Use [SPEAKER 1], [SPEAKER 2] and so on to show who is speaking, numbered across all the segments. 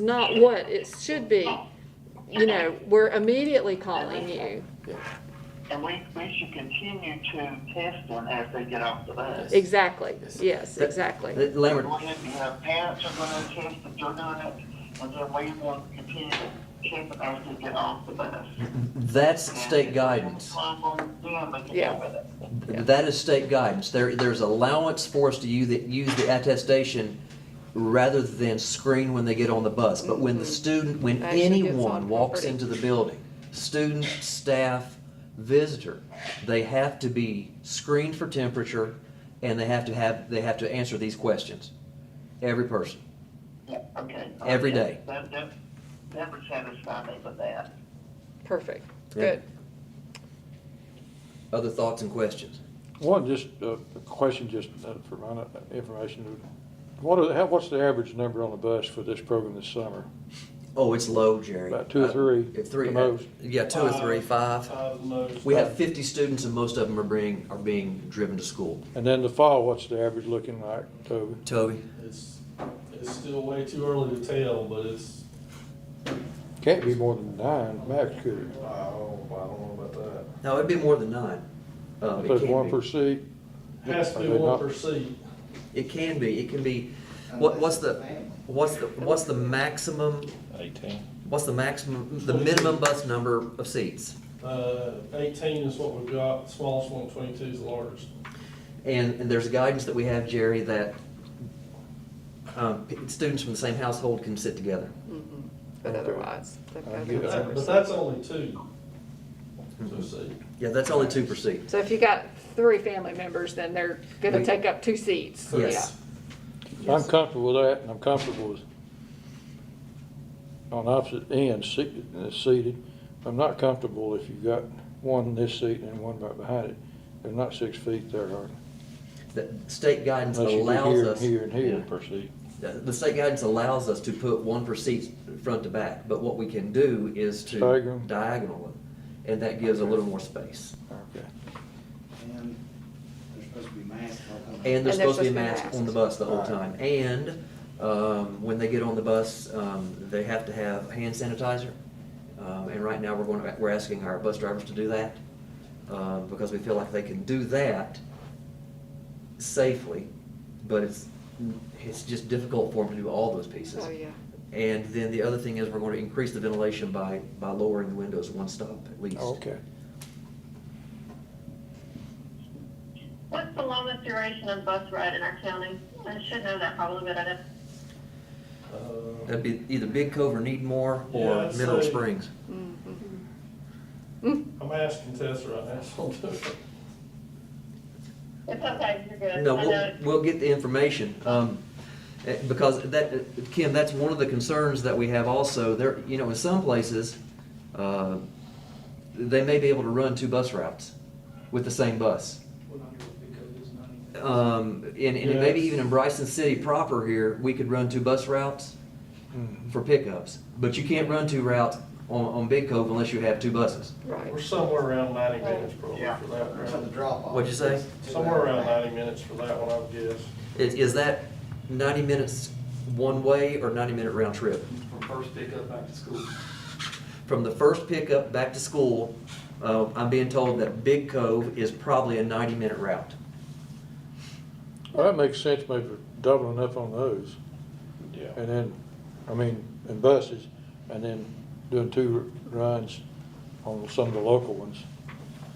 [SPEAKER 1] not what it should be. You know, we're immediately calling you.
[SPEAKER 2] And we, we should continue to test them as they get off the bus.
[SPEAKER 1] Exactly, yes, exactly.
[SPEAKER 3] The Lambert,
[SPEAKER 2] We're gonna have parents are gonna test that you're doing it, and then we will continue to check them as they get off the bus.
[SPEAKER 3] that's state guidance.
[SPEAKER 1] Yeah.
[SPEAKER 2] Yeah.
[SPEAKER 1] Yeah.
[SPEAKER 3] That is state guidance. There, there's allowance for us to use, the- use the attestation rather than screen when they get on the bus. But when the student, when
[SPEAKER 1] Mm-hmm. Actually gets on
[SPEAKER 3] anyone walks
[SPEAKER 1] property.
[SPEAKER 3] into the building, student, staff, visitor, they have to be screened for temperature and they have to have, they have to answer these questions. Every person.
[SPEAKER 2] Okay.
[SPEAKER 3] Every day.
[SPEAKER 2] That, that, that would satisfy me with that.
[SPEAKER 1] Perfect,
[SPEAKER 3] Yeah.
[SPEAKER 1] good.
[SPEAKER 3] Other thoughts and questions?
[SPEAKER 4] One, just uh, a question, just uh, for my information. What are, how, what's the average number on the bus for this program this summer?
[SPEAKER 3] Oh, it's low, Jerry.
[SPEAKER 4] About two or
[SPEAKER 3] Uh,
[SPEAKER 4] three,
[SPEAKER 3] if Three, uh,
[SPEAKER 4] the most.
[SPEAKER 3] yeah, two or three, five.
[SPEAKER 5] Five oh loads.
[SPEAKER 3] We have fifty students and most of them are being, are being driven to school.
[SPEAKER 4] And then the fall, what's the average looking like, Toby?
[SPEAKER 3] Toby?
[SPEAKER 5] It's, it's still way too early to tell, but it's,
[SPEAKER 4] Can't be more than nine, max could
[SPEAKER 5] I don't, I don't know about that.
[SPEAKER 3] No, it'd be more than nine. Um,
[SPEAKER 4] it?
[SPEAKER 3] it
[SPEAKER 4] There's
[SPEAKER 3] can
[SPEAKER 4] one
[SPEAKER 3] be.
[SPEAKER 4] per seat.
[SPEAKER 5] Has to
[SPEAKER 4] Are
[SPEAKER 5] be
[SPEAKER 4] they
[SPEAKER 5] one
[SPEAKER 4] not-
[SPEAKER 5] per seat.
[SPEAKER 3] It can be, it can be, what, what's the, what's the, what's the maximum,
[SPEAKER 6] Eighteen.
[SPEAKER 3] what's the maximum, the minimum bus number of seats?
[SPEAKER 5] Uh, eighteen is what we've got, smallest one, twenty-two is the largest.
[SPEAKER 3] And, and there's guidance that we have, Jerry, that, um, p- students from the same household can sit together.
[SPEAKER 1] But otherwise. they've got to
[SPEAKER 4] I get
[SPEAKER 1] have
[SPEAKER 5] That- But
[SPEAKER 1] separate
[SPEAKER 5] that's only two per seat.
[SPEAKER 3] Yeah, that's only two per seat.
[SPEAKER 1] seats. So if you got three family members, then they're gonna take up two seats, yeah.
[SPEAKER 3] Yes.
[SPEAKER 4] I'm
[SPEAKER 3] Yes.
[SPEAKER 4] comfortable with that, and I'm comfortable with on opposite ends seated, uh, seated. I'm not comfortable if you've got one in this seat and one right behind it. They're not six feet there, are they?
[SPEAKER 3] The state guidance
[SPEAKER 4] Unless you do
[SPEAKER 3] allows
[SPEAKER 4] here and
[SPEAKER 3] us.
[SPEAKER 4] here and here per seat.
[SPEAKER 3] The the state guidance allows us to put one per seat front to back, but what we can do is to
[SPEAKER 4] Stagger 'em.
[SPEAKER 3] diagonal them, and that gives a little more space.
[SPEAKER 4] Okay.
[SPEAKER 7] And they're supposed to be masked. all the time.
[SPEAKER 3] And
[SPEAKER 1] they're
[SPEAKER 3] there's supposed to
[SPEAKER 1] supposed
[SPEAKER 3] be
[SPEAKER 1] to be
[SPEAKER 3] masks on
[SPEAKER 1] masked.
[SPEAKER 3] the bus the whole
[SPEAKER 4] Right.
[SPEAKER 3] time. And um, when they get on the bus, um, they have to have hand sanitizer. Um, And right now, we're going, to- we're asking our bus drivers to do that, um, because we feel like they can do that safely, but it's, it's just difficult for them to do all those pieces.
[SPEAKER 1] Oh, yeah.
[SPEAKER 3] And then the other thing is we're going to increase the ventilation by, by lowering the windows one stop at least.
[SPEAKER 4] Oh, Okay.
[SPEAKER 8] What's the longest duration of bus ride in our county? I should know that probably, but I don't.
[SPEAKER 5] Uh,
[SPEAKER 3] That'd be either Big Cove or Needmore
[SPEAKER 5] Yeah,
[SPEAKER 3] or
[SPEAKER 5] I'd
[SPEAKER 3] Mineral
[SPEAKER 5] say-
[SPEAKER 3] Springs.
[SPEAKER 5] I'm asking Tessa right now, so I'll do it.
[SPEAKER 8] It's okay, you're good.
[SPEAKER 3] No,
[SPEAKER 8] I
[SPEAKER 3] we'll,
[SPEAKER 8] know.
[SPEAKER 3] we'll get the information, um, eh, because that, eh, Kim, that's one of the concerns that we have also. There, you know, in some places, uh, they may be able to run two bus routes with the same bus. Um, and, and maybe
[SPEAKER 5] Yes.
[SPEAKER 3] even in Bryson City proper here, we could run two bus routes
[SPEAKER 4] Mm-hmm.
[SPEAKER 3] for pickups. But you can't run two routes on, on Big Cove unless you have two buses.
[SPEAKER 1] Right.
[SPEAKER 5] We're somewhere around ninety minutes probably
[SPEAKER 2] Yeah.
[SPEAKER 5] for that
[SPEAKER 7] Or on the
[SPEAKER 5] round.
[SPEAKER 7] drop off.
[SPEAKER 3] What'd you say?
[SPEAKER 5] Somewhere around ninety minutes for that one, I would guess.
[SPEAKER 3] Is, is that ninety minutes one way or ninety minute round trip?
[SPEAKER 9] From first pickup back to school.
[SPEAKER 3] From the first pickup back to school, uh, I'm being told that Big Cove is probably a ninety minute route.
[SPEAKER 4] Well, that makes sense, maybe doubling up on those.
[SPEAKER 6] Yeah.
[SPEAKER 4] And then, I mean, in buses, and then doing two runs on some of the local ones.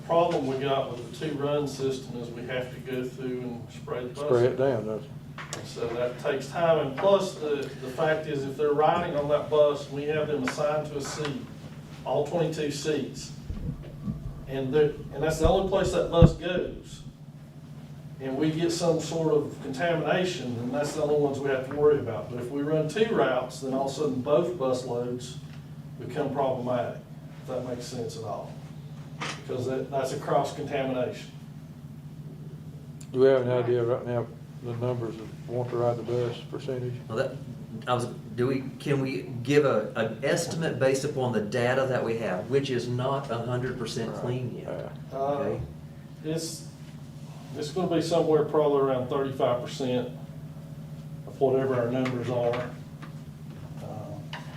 [SPEAKER 5] Problem we got with the two-run system is we have to go through and spray the bus.
[SPEAKER 4] Spray it down, doesn't it?
[SPEAKER 5] So that takes time, and plus, the, the fact is, if they're riding on that bus, we have them assigned to a seat, all twenty-two seats. And they're, and that's the only place that bus goes. And we get some sort of contamination, and that's the only ones we have to worry about. But if we run two routes, then all of a sudden, both bus loads become problematic, if that makes sense at all. Because that, that's a cross-contamination.
[SPEAKER 4] Do we have an idea right now, the numbers that want to ride the bus percentage?
[SPEAKER 3] Well, that, I was, do we, can we give a, an estimate based upon the data that we have, which is not hundred percent clean yet?
[SPEAKER 4] Uh,
[SPEAKER 5] Uh,
[SPEAKER 3] Okay.
[SPEAKER 5] It's, it's gonna be somewhere probably around thirty-five percent of whatever our numbers are. Uh,